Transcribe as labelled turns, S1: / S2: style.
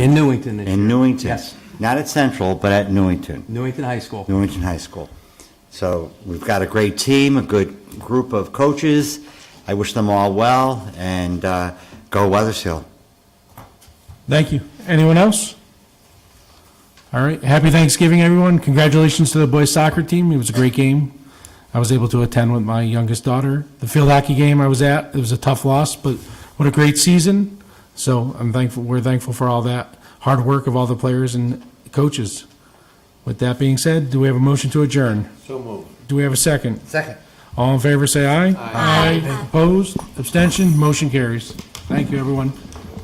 S1: Newington this
S2: In
S1: year.
S2: Newington.
S1: Yes,
S2: Not at Central, but at Newington.
S1: Newington High School.
S2: Newington High School. So we've got a great team, a good group of coaches. I wish them all well, and uh, go Weathersfield.
S3: Thank you. Anyone else? All right. Happy Thanksgiving, everyone. Congratulations to the boys soccer team. It was a great game. I was able to attend with my youngest daughter. The field hockey game I was at, it was a tough loss, but what a great season. So I'm thankful, we're thankful for all that hard work of all the players and coaches. With that being said, do we have a motion to adjourn? So moved. Do we have a second?
S2: Second.
S3: All in favor, say aye. Aye. Opposed, abstention, motion carries. Thank you, everyone.